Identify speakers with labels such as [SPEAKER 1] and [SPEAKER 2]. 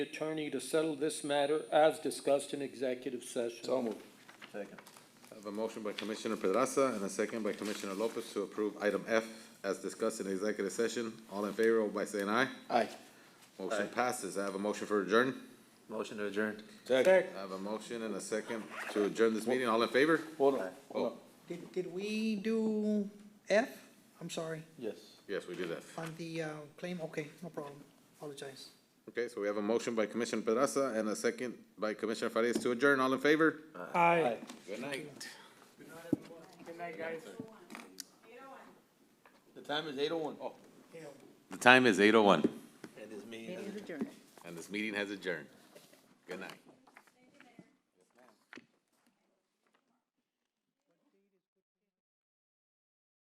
[SPEAKER 1] attorney to settle this matter as discussed in executive session.
[SPEAKER 2] moved.
[SPEAKER 3] Second.
[SPEAKER 2] I have a motion by Commissioner Pedraza and a second by Commissioner Lopez to approve item F as discussed in executive session. All in favor, vote by saying aye.
[SPEAKER 3] Aye.
[SPEAKER 2] Motion
[SPEAKER 3] Aye.
[SPEAKER 2] passes. I have a motion for adjourn.
[SPEAKER 3] Motion to adjourn.
[SPEAKER 1] Second.
[SPEAKER 2] I have a motion and a second to adjourn this meeting. All in favor?
[SPEAKER 3] Hold on.
[SPEAKER 2] Oh,
[SPEAKER 4] Did, did we do F? I'm sorry,
[SPEAKER 3] Yes.
[SPEAKER 2] yes, we did that.
[SPEAKER 4] on the, uh, claim, okay, no problem, apologize.
[SPEAKER 2] Okay, so we have a motion by Commissioner Pedraza and a second by Commissioner Farias to adjourn. All in favor?
[SPEAKER 1] Aye.
[SPEAKER 2] Good night.
[SPEAKER 3] The time is eight oh one. Oh,
[SPEAKER 2] The time is eight oh one,
[SPEAKER 3] and it's me.
[SPEAKER 5] Meeting is adjourned.
[SPEAKER 2] and this meeting has adjourned. Good night.